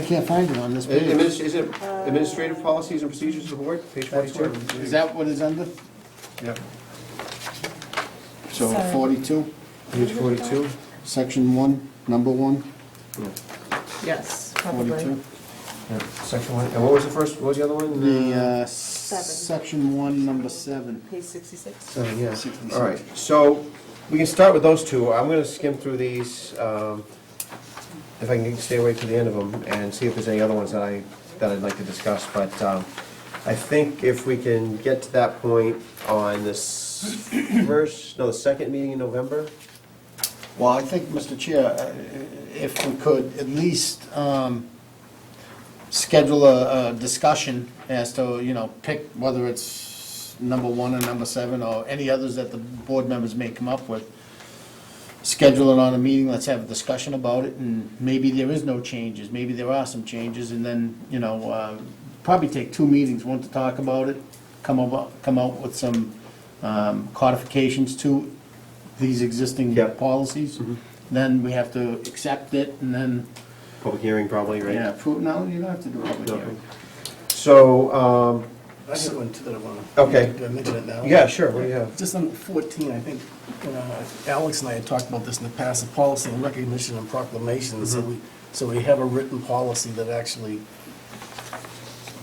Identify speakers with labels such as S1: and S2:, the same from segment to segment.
S1: I can't find it on this page.
S2: Adminis- Is it administrative policies and procedures of the board, page
S1: That's what,
S2: 42?
S1: is that what it's under?
S2: Yep.
S1: So
S3: Sorry.
S1: forty-two,
S2: Page 42?
S1: section one, number one,
S3: Yes, probably.
S1: forty-two.
S2: Yeah. Section one, and what was the first, what was the other one?
S1: The, uh,
S3: Seven.
S1: section one, number seven.
S3: Page sixty-six.
S2: Seven, Uh, yeah.
S1: Sixty
S2: All right, so we can start with those two. I'm gonna skim through these, um, if I can stay away to the end of them, and see if there's any other ones that I, that I'd like to discuss, but um, I think if we can get to that point on this first, no, the second meeting in November,
S1: Well, I think, Mr. Chair, uh, if we could at least um, schedule a a discussion as to, you know, pick whether it's number one or number seven, or any others that the board members may come up with. Schedule it on a meeting, let's have a discussion about it, and maybe there is no changes, maybe there are some changes, and then, you know, uh, probably take two meetings, one to talk about it, come up, come out with some um, codifications to these existing
S2: Yep.
S1: policies,
S2: Mm-hmm.
S1: then we have to accept it, and then,
S2: public hearing probably, right?
S1: yeah, approve, no, you don't have to do a public
S2: No.
S1: hearing.
S2: So, um,
S4: I got one too that I want to.
S2: Okay.
S4: Do I mention it now?
S2: yeah, sure, what do you have?
S4: Just on 14, I think, uh, Alex and I had talked about this in the past, the policy and recognition and proclamation. So
S2: Mm-hmm.
S4: we, so we have a written policy that actually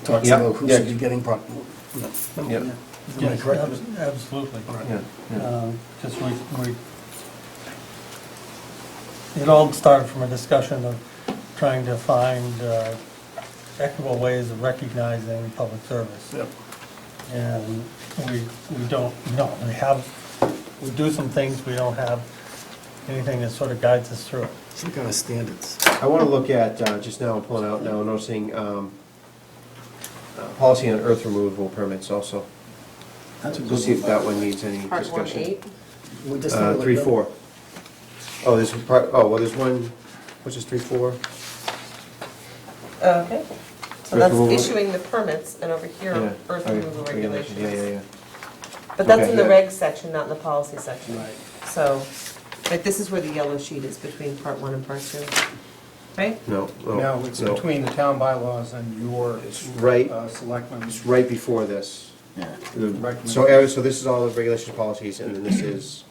S4: talks
S2: Yeah,
S4: about who
S2: yeah.
S4: should be getting proc.
S2: Yeah.
S4: Am I
S5: Yes,
S4: correct?
S5: abs- absolutely.
S4: All right.
S2: Yeah, yeah.
S5: Um, Just we, we, it all started from a discussion of trying to find uh, equitable ways of recognizing public service.
S4: Yep.
S5: And we, we don't, know. we have, we do some things, we don't have anything that sort of guides us through.
S4: Some kind of standards.
S2: I want to look at, uh, just now, I'm pulling out now, noticing um, uh, policy on earth removal permits also.
S1: That's a
S2: We'll see if that one needs any
S3: Part one
S2: discussion.
S3: eight.
S4: We're just
S2: Uh,
S4: not
S2: Three,
S4: like that.
S2: four. Oh, there's a part, oh, well, there's one, what's this, three, four?
S3: Okay. So
S2: Earth
S3: that's
S2: removal.
S3: issuing the permits and over here,
S2: Yeah.
S3: earth
S2: Okay,
S3: removal
S2: regulations, Yeah, yeah,
S3: regulations.
S2: yeah.
S3: But that's
S2: Okay.
S3: in the reg section, not in the policy section.
S4: Right.
S3: So, like, this is where the yellow sheet is between part one and part two, right?
S2: No, no.
S6: No, it's
S2: no.
S6: between the town bylaws and your
S2: It's right,
S6: uh,
S2: it's
S6: selectmen's.
S2: right before this.
S1: Yeah.
S2: The-
S6: Recommend-
S2: So, uh, so this is all the regulations, policies, and then this is,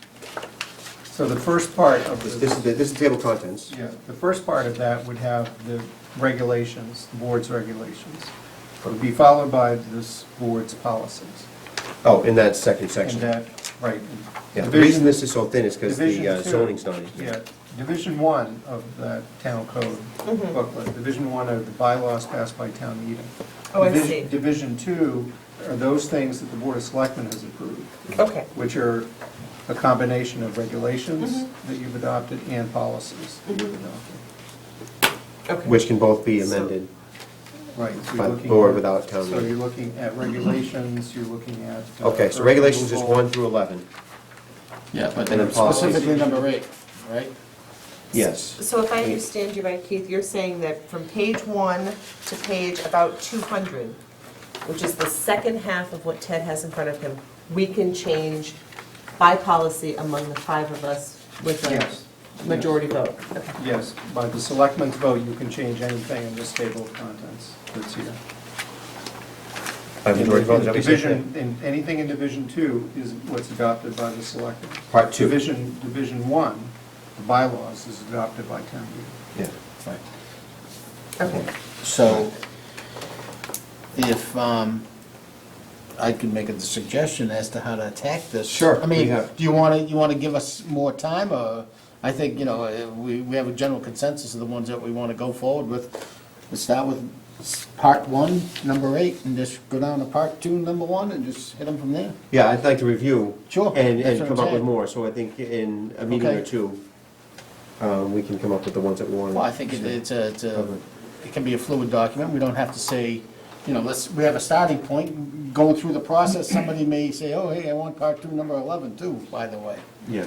S6: So the first part of
S2: this
S6: the,
S2: this is, the- this is table of contents.
S6: yeah, the first part of that would have the regulations, the board's regulations. It would be followed by this board's policies.
S2: Oh, in that second section.
S6: And that, right.
S2: Yeah, the
S6: Division-
S2: reason this is so thin is because the
S6: Division
S2: uh,
S6: two-
S2: zoning's not in
S6: Yeah,
S2: here.
S6: Division One of the town code
S3: Mm-hmm.
S6: booklet, Division One are the bylaws passed by town meeting.
S3: Oh, I
S6: Divis-
S3: see.
S6: Division Two are those things that the Board of Selectmen has approved.
S3: Okay,
S6: which are a combination of regulations
S3: Mm-hmm.
S6: that you've adopted and policies that you've adopted.
S3: okay.
S2: Which can both be
S3: So-
S2: amended.
S6: Right. so you're
S2: By
S6: looking
S2: board
S6: at-
S2: without town
S6: So
S2: meeting.
S6: you're looking at regulations, you're looking at. uh,
S2: Okay, so regulations is
S6: removal.
S2: one through 11.
S1: Yeah, but
S2: And then policies.
S1: specifically number eight, right?
S2: Yes.
S3: So if I understand you right, Keith, you're saying that from page one to page about two hundred, which is the second half of what Ted has in front of him, we can change by policy among the five of us with
S6: Yes.
S3: a majority vote? Okay.
S6: Yes, by the selectmen's vote, you can change anything in this table of contents that's here.
S2: By majority vote, is that what you said?
S6: Division, in- anything in Division Two is what's adopted by the selectmen.
S2: Part two.
S6: Division, Division One, the bylaws is adopted by town meeting.
S2: Yeah.
S3: Okay,
S1: So if um, I could make a suggestion as to how to attack this.
S2: Sure,
S1: I
S2: we
S1: mean,
S2: have-
S1: do you want to, you want to give us more time or, I think, you know, eh, we, we have a general consensus of the ones that we want to go forward with. Let's start with s- part one, number eight, and just go down to part two, number one, and just hit them from there.
S2: Yeah, I'd like to review.
S1: Sure,
S2: And,
S1: that's what
S2: and come
S1: I'm
S2: up with
S1: saying.
S2: more, so I think in a meeting or
S1: Okay.
S2: two, um, we can come up with the ones that we want.
S1: Well, I think it- it's a, it's a,
S2: Okay.
S1: it can be a fluid document, we don't have to say, you know, let's, we have a starting point, going through the process, somebody may say, oh, hey, I want part two, number eleven too, by the way,
S2: Yeah.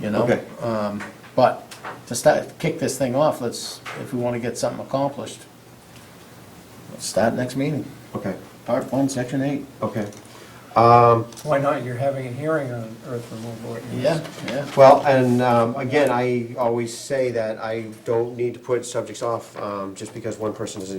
S1: you know?
S2: Okay.
S1: Um, But to start, kick this thing off, let's, if we wanna get something accomplished, let's start next meeting,
S2: Okay,
S1: part one, section eight.
S2: okay.
S5: Why not? You're having a hearing on earth removal. ordinance.
S1: Yeah, yeah.
S2: Well, and um, again, I always say that I don't need to put subjects off um, just because one person doesn't